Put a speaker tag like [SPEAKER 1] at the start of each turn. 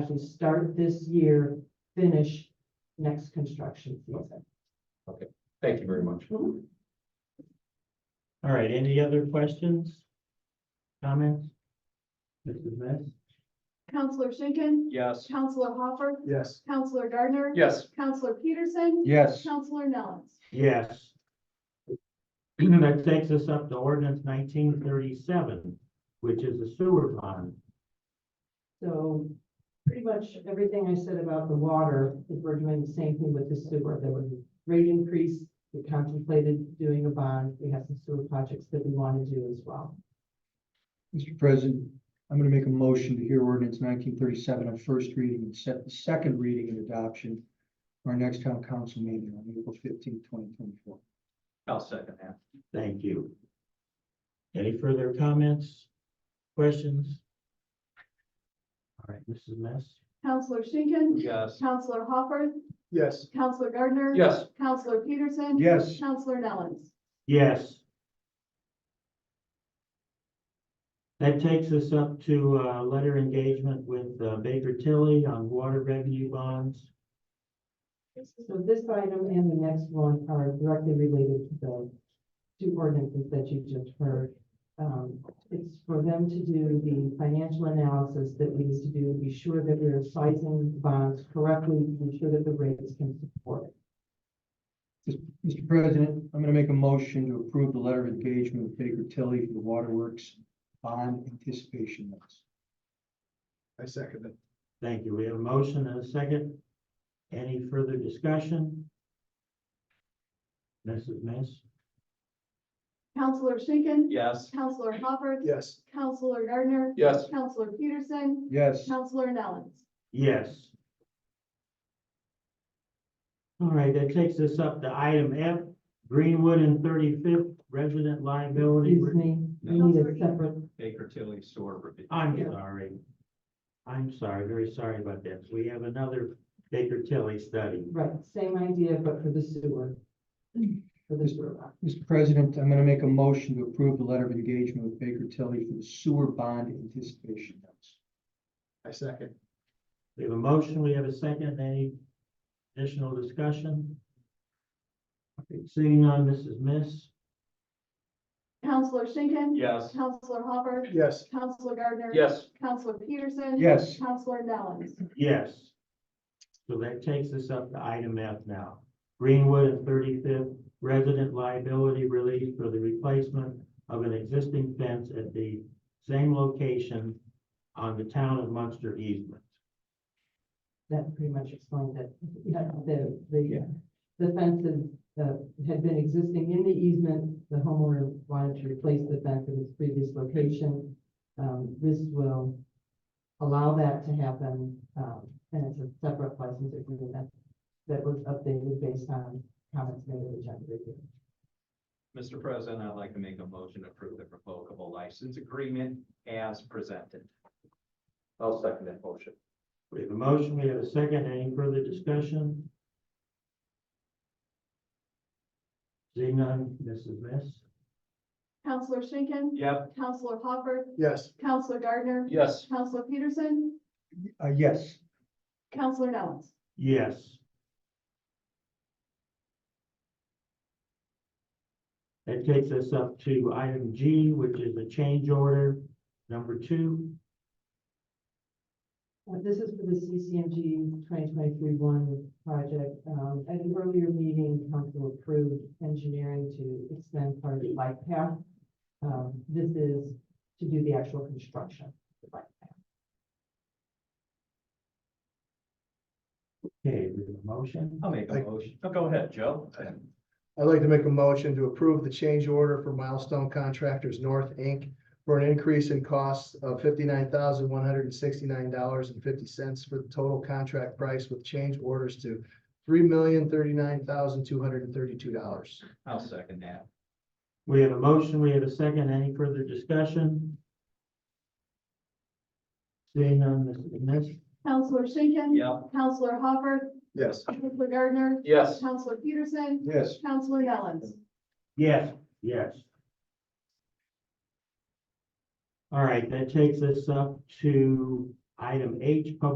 [SPEAKER 1] construction, start this year, finish next construction season.
[SPEAKER 2] Thank you very much.
[SPEAKER 3] All right, any other questions? Comments? Mrs. Miss?
[SPEAKER 4] Counselor Schinkin.
[SPEAKER 2] Yes.
[SPEAKER 4] Counselor Hopper.
[SPEAKER 5] Yes.
[SPEAKER 4] Counselor Gardner.
[SPEAKER 2] Yes.
[SPEAKER 4] Counselor Peterson.
[SPEAKER 5] Yes.
[SPEAKER 4] Counselor Nellens.
[SPEAKER 3] Yes. That takes us up to ordinance nineteen thirty-seven, which is the sewer bond.
[SPEAKER 1] So pretty much everything I said about the water, if we're doing the same thing with the sewer, there was a rate increase. We contemplated doing a bond. We have some sewer projects that we want to do as well.
[SPEAKER 5] Mr. President, I'm gonna make a motion to hear ordinance nineteen thirty-seven on first reading and set the second reading and adoption for our next town council meeting on April fifteenth, twenty twenty-four.
[SPEAKER 2] I'll second that.
[SPEAKER 3] Thank you. Any further comments? Questions? All right, Mrs. Miss?
[SPEAKER 4] Counselor Schinkin.
[SPEAKER 2] Yes.
[SPEAKER 4] Counselor Hopper.
[SPEAKER 5] Yes.
[SPEAKER 4] Counselor Gardner.
[SPEAKER 2] Yes.
[SPEAKER 4] Counselor Peterson.
[SPEAKER 5] Yes.
[SPEAKER 4] Counselor Nellens.
[SPEAKER 3] Yes. That takes us up to, uh, letter engagement with uh, Baker Tilly on water revenue bonds.
[SPEAKER 1] So this item and the next one are directly related to the two ordinances that you just heard. Um, it's for them to do the financial analysis that we need to do, be sure that we're sizing bonds correctly, be sure that the rates can support it.
[SPEAKER 5] Mr. President, I'm gonna make a motion to approve the letter of engagement with Baker Tilly for the waterworks bond anticipation notice. I second it.
[SPEAKER 3] Thank you. We have a motion and a second. Any further discussion? Mrs. Miss?
[SPEAKER 4] Counselor Schinkin.
[SPEAKER 2] Yes.
[SPEAKER 4] Counselor Hopper.
[SPEAKER 5] Yes.
[SPEAKER 4] Counselor Gardner.
[SPEAKER 2] Yes.
[SPEAKER 4] Counselor Peterson.
[SPEAKER 5] Yes.
[SPEAKER 4] Counselor Nellens.
[SPEAKER 3] Yes. All right, that takes us up to item F, Greenwood and Thirty-Fifth Resident Liability.
[SPEAKER 1] Excuse me, we need a separate,
[SPEAKER 2] Baker Tilly Sewer Review.
[SPEAKER 3] I'm sorry. I'm sorry, very sorry about that. We have another Baker Tilly study.
[SPEAKER 1] right, same idea, but for the sewer. For the sewer. bond.
[SPEAKER 5] Mr. President, I'm gonna make a motion to approve the letter of engagement with Baker Tilly for the sewer bond anticipation notice. I second.
[SPEAKER 3] We have a motion, we have a second. Any additional discussion? Okay, Seeing on Mrs. Miss?
[SPEAKER 4] Counselor Schinkin.
[SPEAKER 2] Yes.
[SPEAKER 4] Counselor Hopper.
[SPEAKER 5] Yes.
[SPEAKER 4] Counselor Gardner.
[SPEAKER 2] Yes.
[SPEAKER 4] Counselor Peterson.
[SPEAKER 5] Yes.
[SPEAKER 4] Counselor Nellens.
[SPEAKER 3] Yes. So that takes us up to item F now. Greenwood and Thirty-Fifth Resident Liability Relief for the replacement of an existing fence at the same location on the town of Munster easement.
[SPEAKER 1] That pretty much explained that, that the, the, the fences, uh, had been existing in the easement. The homeowner wanted to replace the fence in its previous location. Um, this will allow that to happen, um, and it's a separate license agreement that was updated based on comments made at the agenda review.
[SPEAKER 2] Mr. President, I'd like to make a motion to approve the revocable license agreement as presented. I'll second that motion.
[SPEAKER 3] We have a motion, we have a second. Any further discussion? Seeing none, Mrs. Miss?
[SPEAKER 4] Counselor Schinkin.
[SPEAKER 2] Yep.
[SPEAKER 4] Counselor Hopper.
[SPEAKER 5] Yes.
[SPEAKER 4] Counselor Gardner.
[SPEAKER 2] Yes.
[SPEAKER 4] Counselor Peterson.
[SPEAKER 5] Uh, yes.
[SPEAKER 4] Counselor Nellens.
[SPEAKER 3] Yes. That takes us up to item G, which is a change order number two.
[SPEAKER 1] Uh, This is for the CCMG 2023-1 project. Um, At an earlier meeting, council approved engineering to extend part of the bike path. Um, This is to do the actual construction of the bike path.
[SPEAKER 3] Okay, we have a motion.
[SPEAKER 2] I'll make a motion. Oh, go ahead, Joe.
[SPEAKER 6] I'd like to make a motion to approve the change order for Milestone Contractors North, Inc. for an increase in costs of fifty-nine thousand, one hundred and sixty-nine dollars and fifty cents for the total contract price with change orders to three million, thirty-nine thousand, two hundred and thirty-two dollars.
[SPEAKER 2] I'll second that.
[SPEAKER 3] We have a motion, we have a second. Any further discussion? Seeing none, Mrs. Miss?
[SPEAKER 4] Counselor Schinkin.
[SPEAKER 2] Yep.
[SPEAKER 4] Counselor Hopper.
[SPEAKER 6] Yes.
[SPEAKER 4] Counselor Gardner.
[SPEAKER 2] Yes.
[SPEAKER 4] Counselor Peterson.
[SPEAKER 5] Yes.
[SPEAKER 4] Counselor Nellens.
[SPEAKER 3] Yes, yes. All right, that takes us up to item H, public